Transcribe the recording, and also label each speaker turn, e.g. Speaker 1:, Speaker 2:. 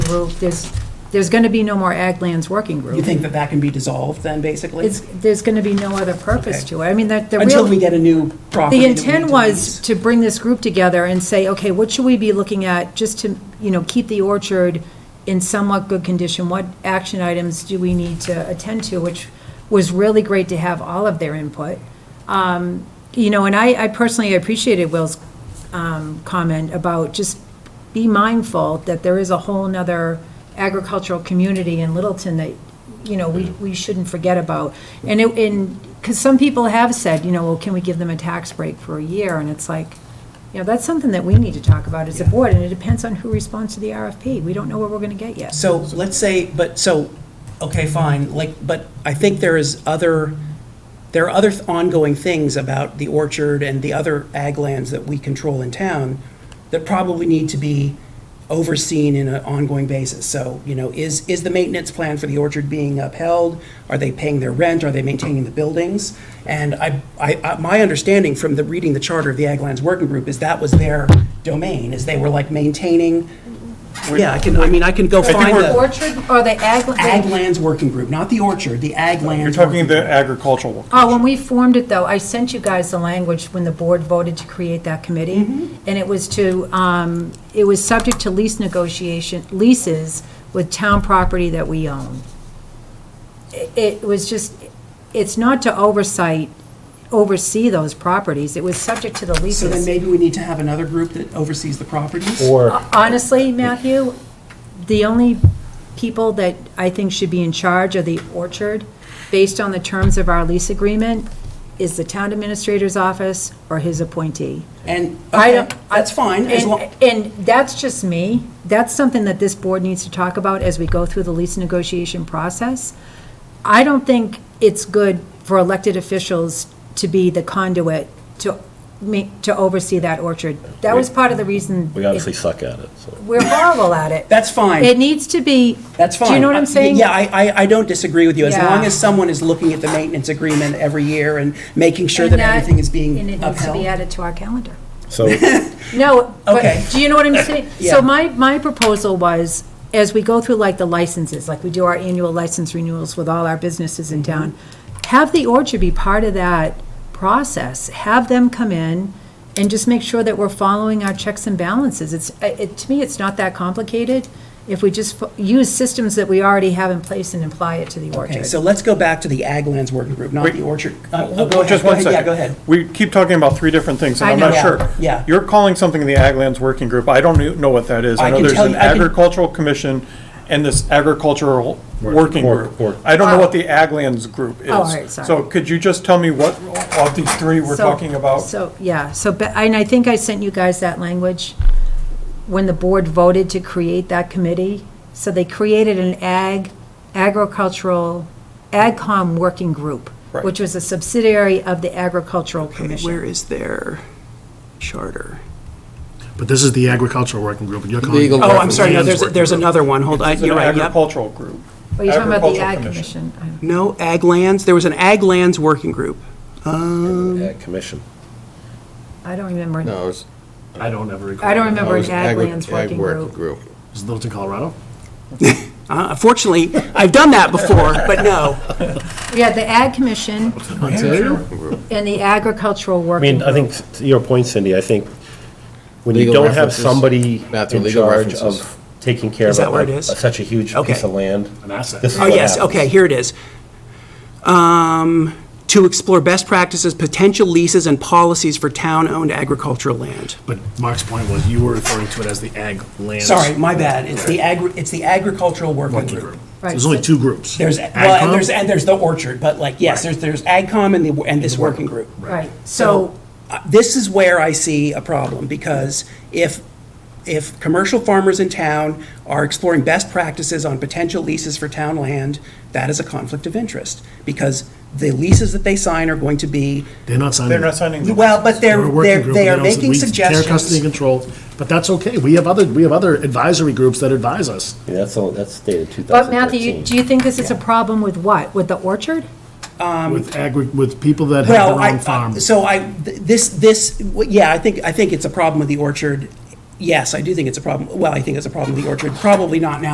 Speaker 1: group, there's, there's going to be no more Ag Lands Working Group.
Speaker 2: You think that that can be dissolved then, basically?
Speaker 1: It's, there's going to be no other purpose
Speaker 2: Okay.
Speaker 1: to it. I mean, that, the
Speaker 2: Until
Speaker 1: real,
Speaker 2: we get a new property.
Speaker 1: the
Speaker 2: that we need
Speaker 1: intent
Speaker 2: to
Speaker 1: was
Speaker 2: lease.
Speaker 1: to bring this group together and say, okay, what should we be looking at just to, you know, keep the orchard in somewhat good condition? What action items do we need to attend to? Which was really great to have all of their input. Um, You know, and I, I personally appreciated Will's um, comment about just be mindful that there is a whole nother agricultural community in Littleton that, you know, we, we shouldn't forget about. And it, and, because some people have said, you know, well, can we give them a tax break for a year? And it's like, you know, that's something that we need to talk about as a board, and it depends on who responds to the RFP. We don't know what we're gonna get yet.
Speaker 2: So let's say, but, so, okay, fine, like, but I think there is other, there are other ongoing things about the orchard and the other ag lands that we control in town that probably need to be overseen in an ongoing basis. So, you know, is, is the maintenance plan for the orchard being upheld? Are they paying their rent? Are they maintaining the buildings? And I, I, I- my understanding from the, reading the charter of the Ag Lands Working Group is that was their domain, is they were like maintaining, yeah, I can, I mean, I can go
Speaker 3: think
Speaker 2: find
Speaker 3: we're-
Speaker 2: the.
Speaker 1: Orchard or the ag?
Speaker 2: Ag Lands Working Group, not the orchard, the Ag
Speaker 3: You're
Speaker 2: Lands.
Speaker 3: talking
Speaker 2: Working Group.
Speaker 3: the agricultural work.
Speaker 1: Oh, when we formed it, though, I sent you guys the language when the board voted to create that committee. And it was to, um, it was subject to lease negotiation, leases with town property that we own. I- It was just, it's not to oversight, oversee those properties. It was subject to the
Speaker 2: So then
Speaker 1: leases.
Speaker 2: maybe we need to have another group that oversees the properties?
Speaker 4: Or,
Speaker 1: Honestly, Matthew, the only people that I think should be in charge of the orchard, based on the terms of our lease agreement, is the town administrator's office or his appointee.
Speaker 2: And,
Speaker 1: I
Speaker 2: okay,
Speaker 1: don't-
Speaker 2: that's fine, as long,
Speaker 1: And, and that's just me. That's something that this board needs to talk about as we go through the lease negotiation process. I don't think it's good for elected officials to be the conduit to make, to oversee that orchard. That was part of the reason.
Speaker 4: we obviously suck at it, so.
Speaker 1: We're horrible at it.
Speaker 2: that's fine.
Speaker 1: It needs to be.
Speaker 2: That's fine.
Speaker 1: Do you know what I'm
Speaker 2: Uh,
Speaker 1: saying?
Speaker 2: Yeah, I, I, I don't disagree with you. As
Speaker 1: Yeah.
Speaker 2: long as someone is looking at the maintenance agreement every year and making sure that
Speaker 1: And
Speaker 2: everything is
Speaker 1: And it
Speaker 2: being
Speaker 1: needs to be
Speaker 2: upheld.
Speaker 1: added to our calendar.
Speaker 4: So,
Speaker 1: No,
Speaker 2: Okay.
Speaker 1: but, do you know what I'm saying?
Speaker 2: Yeah.
Speaker 1: So my, my proposal was, as we go through like the licenses, like we do our annual license renewals with all our businesses
Speaker 2: Mm-hmm.
Speaker 1: in town, have the orchard be part of that process. Have them come in and just make sure that we're following our checks and balances. It's, uh, it, to me, it's not that complicated if we just fo- use systems that we already have in place and apply it to the
Speaker 2: Okay,
Speaker 1: orchard.
Speaker 2: so let's go back to the Ag Lands Working Group, not
Speaker 3: Wait.
Speaker 2: the orchard. Uh,
Speaker 3: Well,
Speaker 2: go ahead,
Speaker 3: Just
Speaker 2: go
Speaker 3: one
Speaker 2: ahead,
Speaker 3: second.
Speaker 2: Yeah, go ahead.
Speaker 3: We keep talking about three different things, and
Speaker 1: I
Speaker 3: I'm
Speaker 1: know.
Speaker 3: not
Speaker 1: Yeah,
Speaker 3: sure.
Speaker 2: yeah.
Speaker 3: You're calling something the Ag Lands Working Group. I don't kno- know what that is.
Speaker 2: I
Speaker 3: I know
Speaker 2: can
Speaker 3: there's
Speaker 2: tell
Speaker 3: an
Speaker 2: you- I can-
Speaker 3: agricultural commission and this agricultural
Speaker 4: Work-
Speaker 3: working
Speaker 4: work- work.
Speaker 3: group. I don't know what the Ag Lands Group is.
Speaker 2: Oh,
Speaker 1: all right, sorry.
Speaker 3: So could you just tell me what of these three we're
Speaker 1: So-
Speaker 3: talking about?
Speaker 1: So, yeah, so, but- and I think I sent you guys that language when the board voted to create that committee. So they created an ag, agricultural, AgCom working group,
Speaker 3: Right.
Speaker 1: which was a subsidiary of the Agricultural
Speaker 2: Okay,
Speaker 1: Commission.
Speaker 2: Where is their charter?
Speaker 5: But this is the agricultural working group, and you're calling.
Speaker 6: Legal
Speaker 5: it-
Speaker 2: Oh, I'm sorry, no,
Speaker 5: Lands
Speaker 2: there's,
Speaker 5: Working
Speaker 2: there's
Speaker 5: Group.
Speaker 2: another one. Hold, on.
Speaker 3: It's an
Speaker 2: you're right, yep.
Speaker 3: agricultural group.
Speaker 1: Are you talking about the
Speaker 3: Agricultural
Speaker 1: Ag Commission? I-
Speaker 2: No, Ag Lands, there was an Ag Lands Working Group.
Speaker 4: Ag Commission.
Speaker 1: I don't remember.
Speaker 6: No, it was,
Speaker 5: I don't ever recall.
Speaker 1: I don't
Speaker 6: it
Speaker 1: remember
Speaker 6: was
Speaker 1: an ag
Speaker 6: agri-
Speaker 1: lands
Speaker 6: ag
Speaker 1: working
Speaker 6: working
Speaker 1: group.
Speaker 6: group.
Speaker 5: Is Littleton, Colorado?
Speaker 2: Uh, Fortunately, I've done that before, but no.
Speaker 1: Yeah, the Ag Commission
Speaker 5: Ontario?
Speaker 1: and the Agricultural
Speaker 4: I
Speaker 1: Working
Speaker 4: mean, I
Speaker 1: Group.
Speaker 4: think, to your point, Cindy, I think when you
Speaker 6: Legal
Speaker 4: don't have
Speaker 6: references.
Speaker 4: somebody
Speaker 6: Matthew,
Speaker 4: in
Speaker 6: legal
Speaker 4: charge
Speaker 6: references.
Speaker 4: of taking care
Speaker 2: Is
Speaker 4: of
Speaker 2: that where it
Speaker 4: a-
Speaker 2: is?
Speaker 4: such a huge
Speaker 2: Okay.
Speaker 4: piece of land.
Speaker 5: An asset.
Speaker 4: this is
Speaker 2: Oh,
Speaker 4: what
Speaker 2: yes,
Speaker 4: happens.
Speaker 2: okay, here it is. Um, To explore best practices, potential leases, and policies for town-owned agricultural land.
Speaker 5: But Mark's point was, you were referring to it as the ag lands.
Speaker 2: Sorry, my bad. It's the agri, it's the agricultural working
Speaker 5: Working
Speaker 2: group.
Speaker 5: group. So There's only two groups.
Speaker 2: There's, well, and
Speaker 5: AgCom?
Speaker 2: there's, and there's the orchard, but like, yes, there's, there's AgCom and the, and this working group.
Speaker 1: Right, so,
Speaker 2: So uh, this is where I see a problem because if, if commercial farmers in town are exploring best practices on potential leases for town land, that is a conflict of interest because the leases that they sign are going to be
Speaker 5: They're not signing.
Speaker 3: They're not signing. the-
Speaker 2: Well, but
Speaker 5: They're
Speaker 2: they're,
Speaker 5: a working
Speaker 2: they're,
Speaker 5: group,
Speaker 2: they
Speaker 5: and
Speaker 2: are
Speaker 5: don't s-
Speaker 2: making
Speaker 5: we Care, custody, and
Speaker 2: suggestions.
Speaker 5: control, but that's okay. We have other, we have other advisory groups that advise us.
Speaker 4: Yeah, That's, all- that's dated
Speaker 1: but Matthew, you-
Speaker 4: 2013.
Speaker 1: do you think this is a problem with what? With the orchard?
Speaker 5: With agri, with people that
Speaker 2: Um,
Speaker 5: have
Speaker 2: Well,
Speaker 5: their own
Speaker 2: I,
Speaker 5: farm.
Speaker 2: so I, th- this, this, w- yeah, I think, I think it's a problem with the orchard. Yes, I do think it's a problem. Well, I think it's a problem with the orchard. Probably not now